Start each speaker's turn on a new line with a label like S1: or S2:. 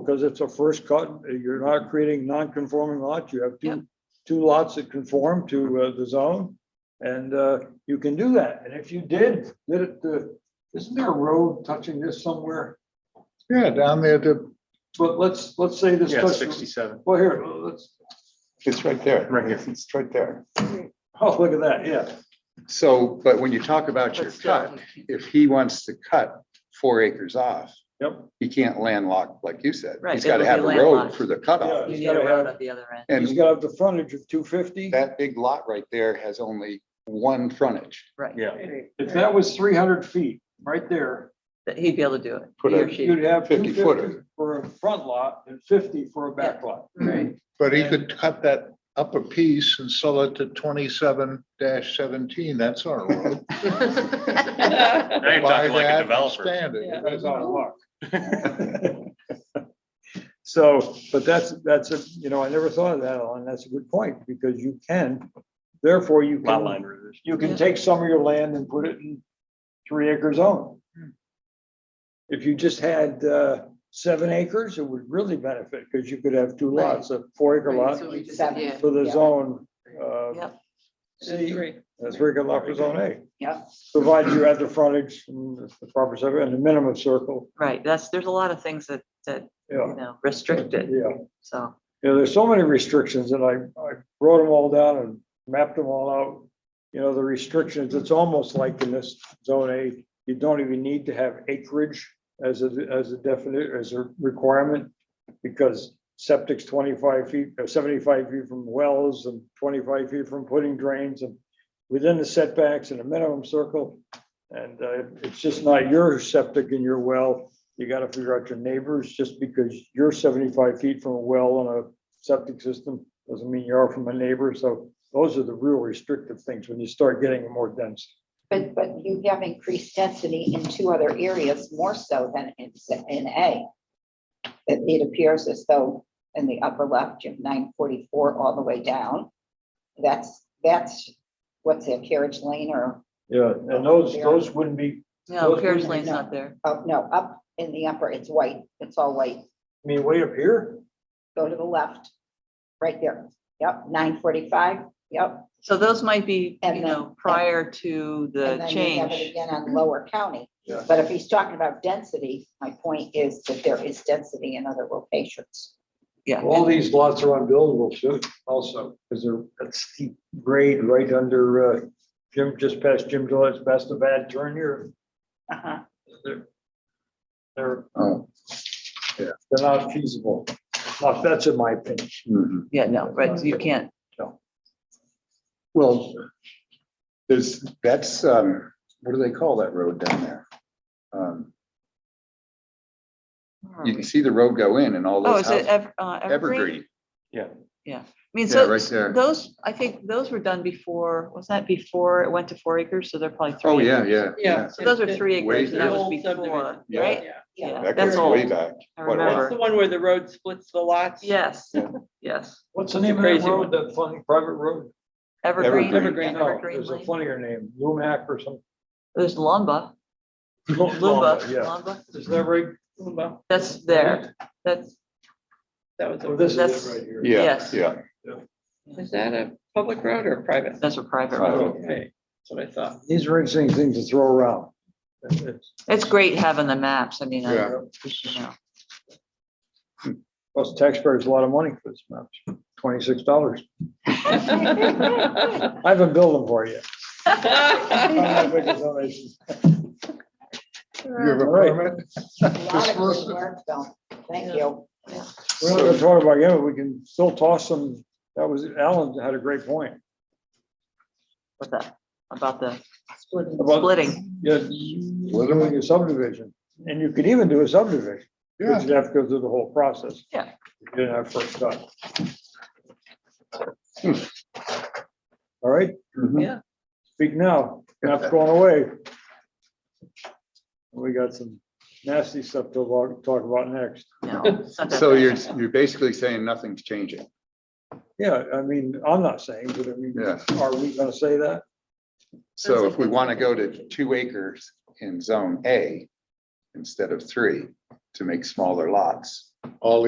S1: because it's a first cut, you're not creating non-conforming lots, you have
S2: Yep.
S1: two, two lots that conform to uh, the zone. And uh, you can do that, and if you did, did it, uh, isn't there a road touching this somewhere?
S3: Yeah, down there to,
S1: But let's, let's say this.
S4: Yeah,
S1: touch-
S4: sixty-seven,
S1: Well, here, let's,
S3: it's right there.
S4: Right here.
S3: It's right there.
S1: oh, look at that, yeah.
S3: So, but when you talk about your
S2: But still,
S3: cut, if he wants to cut four acres off,
S1: Yep.
S3: he can't landlock, like you said.
S2: Right,
S3: He's got to
S2: it'll be
S3: have a road
S2: landlocked.
S3: for the cutoff.
S2: You need a road at the other end.
S1: He's
S3: And
S1: got to have the frontage of two fifty.
S3: that big lot right there has only one frontage.
S2: Right.
S4: yeah.
S1: If that was three hundred feet, right there,
S2: That he'd be able to do it.
S3: Put
S2: he
S3: a-
S2: or she.
S1: you'd have two
S3: 50 footer.
S1: fifty for a front lot and fifty for a back lot.
S2: Right.
S5: But he could cut that upper piece and sell it to twenty-seven seventeen, that's our road.
S4: Now you're
S5: Buy
S4: talking like
S5: that
S4: a
S5: and
S4: developer.
S5: expand it.
S1: That's out of luck. So, but that's, that's a, you know, I never thought of that, Alan. That's a good point, because you can, therefore you
S4: Lot line
S1: can,
S4: revision.
S1: you can take some of your land and put it in three acre zone. If you just had, uh, seven acres, it would really benefit, because you could have two
S6: Right.
S1: lots, a four acre lot
S6: So we just-
S7: Seven.
S6: yeah,
S1: for the
S6: yeah.
S1: zone, uh,
S2: Yep.
S1: C, that's where you can lock for zone A.
S6: Yep.
S1: Provided you had the frontage and the proper center and the minimum circle,
S2: Right, that's, there's a lot of things that, that,
S1: yeah,
S2: you know, restricted,
S1: yeah.
S2: so.
S1: you know, there's so many restrictions and I, I wrote them all down and mapped them all out. You know, the restrictions, it's almost like in this zone A, you don't even need to have acreage as a, as a definite, as a requirement. Because septic's twenty-five feet, or seventy-five feet from wells and twenty-five feet from putting drains and within the setbacks and a minimum circle. And uh, it's just not your septic and your well, you gotta figure out your neighbors, just because you're seventy-five feet from a well on a septic system, doesn't mean you are from a neighbor, so those are the real restrictive things when you start getting more dense.
S7: But, but you have increased density in two other areas more so than in, s- in A. It, it appears as though in the upper left, you have nine forty-four all the way down. That's, that's, what's it, carriage lane or,
S1: Yeah, and those, those wouldn't be,
S2: No,
S1: Those
S2: carriage
S1: people-
S2: lane's not there.
S7: oh, no, up in the upper, it's white, it's all white.
S1: I mean, way up here,
S7: Go to the left, right there. Yep, nine forty-five, yep.
S2: So those might be,
S7: And
S2: you
S7: then-
S2: know, prior to
S7: And
S2: the
S7: then you have it
S2: change.
S7: Again on Lower County.
S1: Yeah.
S7: But if he's talking about density, my point is that there is density in other locations.
S2: Yeah.
S1: all these lots are unbuildable too, also, because they're that steep grade right under, uh, Jim, just past Jim Gillette's best of bad turn here.
S7: Uh-huh.
S1: They're, they're
S3: Oh,
S1: they're not feasible, Now, that's in my opinion.
S3: mhm.
S2: Yeah, no, right, you can't.
S3: Well, there's, that's, um, what do they call that road down there? Um, You can see the road go in and all
S2: Hmm. Oh,
S3: those
S2: is it
S3: houses.
S2: ever, uh, evergreen?
S3: Evergreen,
S2: I
S3: yeah,
S2: mean, so
S3: right there.
S2: those, I think those were done before, was that before it went to four acres? So they're probably three.
S3: Oh, yeah,
S2: acres.
S3: yeah, yeah.
S2: So those are three
S3: Way
S2: acres and that was before,
S3: Yeah.
S2: right?
S7: Yeah.
S2: Yeah,
S3: That
S2: that's
S3: goes way
S2: old.
S3: back.
S2: I
S3: What, what?
S6: That's the
S2: remember.
S6: one where the road splits the lots.
S2: Yes,
S3: Yeah.
S2: yes.
S1: What's the name of that
S6: Crazy
S1: road, that funny private road?
S2: Evergreen. yeah,
S6: Evergreen.
S1: No,
S2: Evergreen
S1: Oh, There's a
S2: Lane.
S1: funnier name, Lumac or something.
S2: There's Lumba, Lumba,
S1: Lumba, Yeah,
S2: Lumba.
S1: is that right?
S6: Lumba,
S2: That's there. That's,
S6: That was,
S1: Well,
S6: a-
S1: this is
S2: That's-
S1: it right here.
S3: Yeah,
S2: Yes.
S3: yeah.
S6: is that a public road or a private?
S2: that's a private
S3: Private.
S2: road.
S6: Okay, that's what I thought.
S1: These are interesting things to throw around. It's-
S2: It's great having the maps. I mean, I-
S3: Yeah.
S2: you know,
S1: Costs taxpayers a lot of money for this map, twenty-six dollars. I haven't billed them for you. Uh,
S3: You have a
S1: All right.
S3: permit?
S7: A lot of good work, though. Thank you.
S1: We're not gonna talk about, yeah, we can still toss them. That was, Alan had a great point.
S2: with that, about the
S1: About-
S2: splitting.
S1: Yeah, doing a subdivision. And you could even do a subdivision, but
S3: Yeah,
S1: you'd have to go through the whole process.
S2: Yeah.
S1: You didn't have first cut. Hmm. All right,
S3: mhm.
S1: speak now, That's going away. We got some nasty stuff to lo- talk about next.
S2: No, it's not that
S3: So
S2: bad.
S3: you're, you're basically saying nothing's changing.
S1: Yeah, I mean, I'm not saying, but I mean,
S3: Yeah.
S1: are we gonna say that?
S3: So if we want to go to two acres in zone A instead of three to make smaller lots, all